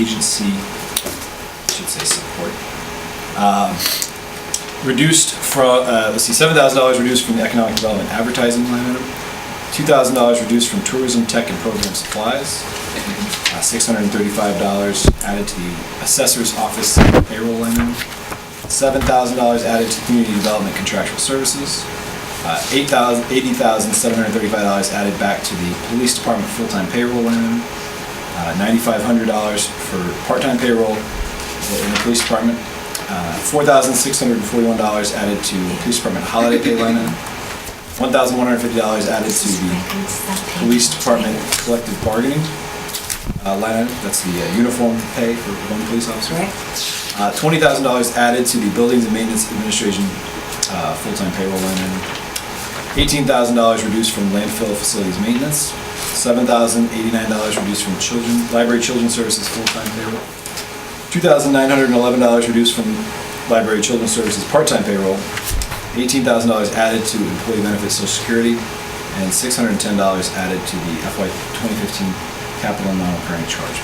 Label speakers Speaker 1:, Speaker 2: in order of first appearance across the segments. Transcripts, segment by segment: Speaker 1: agency, I should say support, um, reduced from, uh, let's see, seven thousand dollars reduced from the economic development advertising line item, two thousand dollars reduced from tourism, tech, and program supplies, Uh, six hundred and thirty-five dollars added to the assessor's office payroll line item, seven thousand dollars added to community development contractual services, uh, eight thousand, eighty thousand, seven hundred and thirty-five dollars added back to the police department full-time payroll line item, uh, $9,500 for part-time payroll in the police department, uh, $4,641 added to the police department holiday pay line item, $1,150 added to the police department collective bargaining uh, line item, that's the uh, uniform pay for one police officer. Uh, $20,000 added to the buildings and maintenance administration uh, full-time payroll line item. $18,000 reduced from landfill facilities maintenance, $7,089 reduced from children, library children's services full-time payroll, $2,911 reduced from library children's services part-time payroll, $18,000 added to employee benefits social security, and $610 added to the FY 2015 capital non-recurring charge.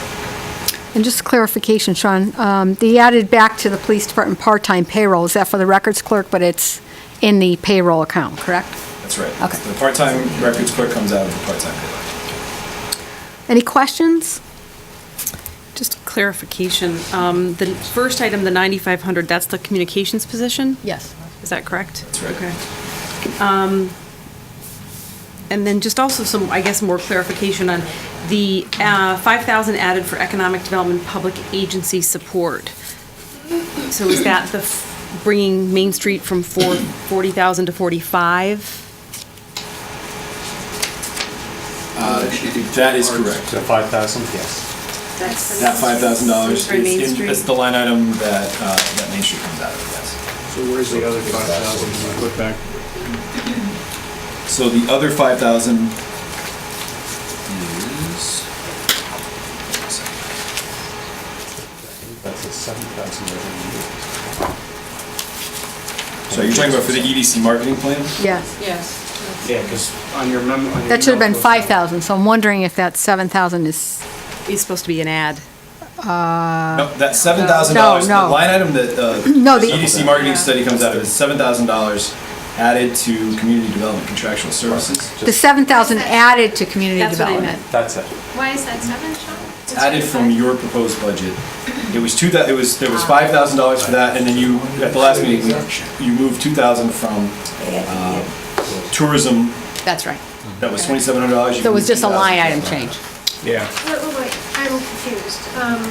Speaker 2: And just clarification, Sean, um, the added back to the police department part-time payroll, is that for the records clerk, but it's in the payroll account, correct?
Speaker 1: That's right.
Speaker 2: Okay.
Speaker 1: The part-time records clerk comes out of the part-time payroll.
Speaker 2: Any questions?
Speaker 3: Just clarification, um, the first item, the 9,500, that's the communications position?
Speaker 2: Yes.
Speaker 3: Is that correct?
Speaker 1: That's right.
Speaker 3: Okay. Um, And then just also some, I guess, more clarification on the uh, 5,000 added for economic development, public agency support. So is that the, f- bringing Main Street from four- 40,000 to 45?
Speaker 1: That is correct.
Speaker 4: To 5,000, yes.
Speaker 3: That's
Speaker 1: That five thousand dollars
Speaker 3: For Main
Speaker 1: is, in-
Speaker 3: Street.
Speaker 1: is the line item that, uh, that Main Street comes out of, yes.
Speaker 5: So where's the other five thousand we put back?
Speaker 1: So the other five thousand is.
Speaker 4: That's a 7,000 every year.
Speaker 1: So you're talking about for the EDC marketing plan?
Speaker 2: Yes.
Speaker 3: Yes.
Speaker 5: Yeah, because on your memo. on your
Speaker 2: That should have been
Speaker 5: email-
Speaker 2: 5,000, so I'm wondering if that 7,000 is,
Speaker 3: It's supposed to be an ad.
Speaker 1: No, that seven thousand dollars, the
Speaker 2: No, no.
Speaker 1: line item that, uh,
Speaker 2: No,
Speaker 1: the
Speaker 2: the-
Speaker 1: EDC marketing study comes out of is seven thousand dollars added to community development contractual services.
Speaker 2: the 7,000 added to community
Speaker 3: That's what I
Speaker 2: development.
Speaker 3: meant.
Speaker 4: That's it.
Speaker 6: Why is that seven, Sean?
Speaker 1: added from your proposed budget. It was two, thou- it was, there was five thousand dollars for that, and then you, at the last meeting, you moved two thousand from uh, tourism,
Speaker 2: That's right.
Speaker 1: that was twenty-seven hundred dollars.
Speaker 2: So it was just a line item change.
Speaker 5: Yeah.
Speaker 6: Wait, wait, wait, I'm confused. Um,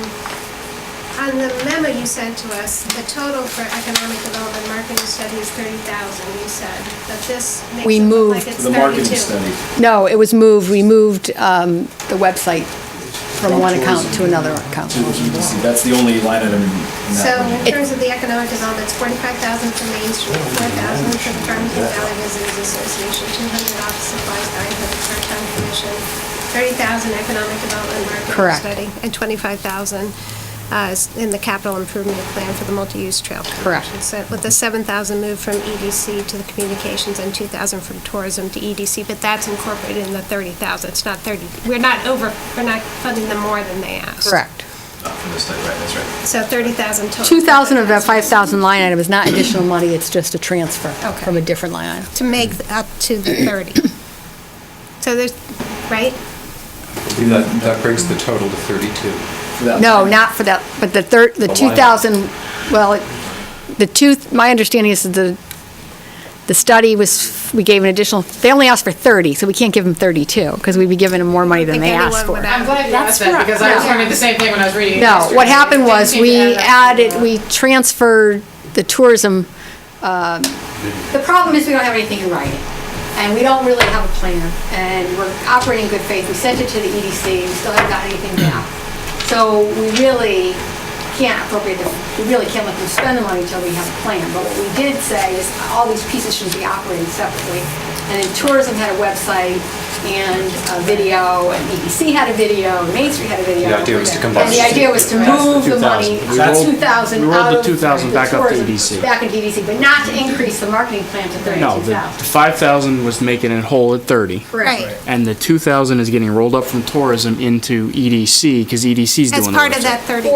Speaker 6: On the memo you sent to us, the total for economic development marketing study is thirty thousand, you said, but this makes
Speaker 2: We
Speaker 6: it look
Speaker 2: moved-
Speaker 6: like it's
Speaker 1: The marketing study.
Speaker 6: thirty-two.
Speaker 2: No, it was moved, we moved um, the website from one account to another account.
Speaker 1: To the EDC, that's the only line item in
Speaker 6: So
Speaker 1: that.
Speaker 6: in
Speaker 1: budget.
Speaker 6: terms of the economic development, it's forty-five thousand for Main Street, four thousand for the Farmington Valley Visitors Association, two hundred office supplies, nine hundred for town commission, thirty thousand economic development marketing
Speaker 2: Correct.
Speaker 6: study, and twenty-five thousand uh, in the capital improvement plan for the multi-use trail.
Speaker 2: Correct.
Speaker 6: connection. So with the seven thousand moved from EDC to the communications and two thousand from tourism to EDC, but that's incorporated in the thirty thousand. It's not thirty, we're not over, we're not funding them more than they asked.
Speaker 2: Correct.
Speaker 1: Not For this study, right, that's right.
Speaker 6: So thirty thousand total.
Speaker 2: 2,000 of that 5,000 line item is not additional money, it's just a transfer
Speaker 6: Okay.
Speaker 2: from a different line item.
Speaker 6: to make up to the 30. So there's, right?
Speaker 4: That that brings the total to 32.
Speaker 1: For that
Speaker 2: No,
Speaker 1: line.
Speaker 2: not for that, but the third, the
Speaker 4: The lineup.
Speaker 2: 2,000, well, it- the two, my understanding is that the, the study was, we gave an additional, they only asked for 30, so we can't give them 32, because we'd be giving them more money than
Speaker 6: think
Speaker 2: they
Speaker 6: anyone
Speaker 2: asked for.
Speaker 6: would
Speaker 7: I'm glad you asked that because I was wondering the same thing when I was reading it.
Speaker 2: No,
Speaker 7: yesterday.
Speaker 2: what happened
Speaker 7: Didn't
Speaker 2: was,
Speaker 7: seem to
Speaker 2: we
Speaker 7: add up.
Speaker 2: added, we transferred the tourism, um, the problem is we don't have anything in writing, and we don't really have a plan, and we're operating in good faith. We sent it to the EDC, we still haven't gotten anything back. So we really can't appropriate, the- we really can't let them spend the money until we have a plan. But what we did say is, all these pieces should be operating separately. And then tourism had a website, and a video, and EDC had a video, and Main Street had a video.
Speaker 4: The idea was to combine
Speaker 2: And the idea was to move the money,
Speaker 5: 2,000. We
Speaker 2: that's
Speaker 5: rolled-
Speaker 2: 2,000
Speaker 5: we rolled
Speaker 2: out
Speaker 5: the
Speaker 2: of
Speaker 5: 2,000 back up to E
Speaker 2: tourism,
Speaker 5: EDC.
Speaker 2: Back into EDC, but not to increase the marketing plan to
Speaker 5: No, the
Speaker 2: 32,000.
Speaker 5: the 5,000 was making it whole at 30.
Speaker 2: Correct.
Speaker 6: Right.
Speaker 5: And the 2,000 is getting rolled up from tourism into E EDC, because EDC's doing
Speaker 6: As
Speaker 5: the
Speaker 6: part of
Speaker 5: website.
Speaker 6: that 30.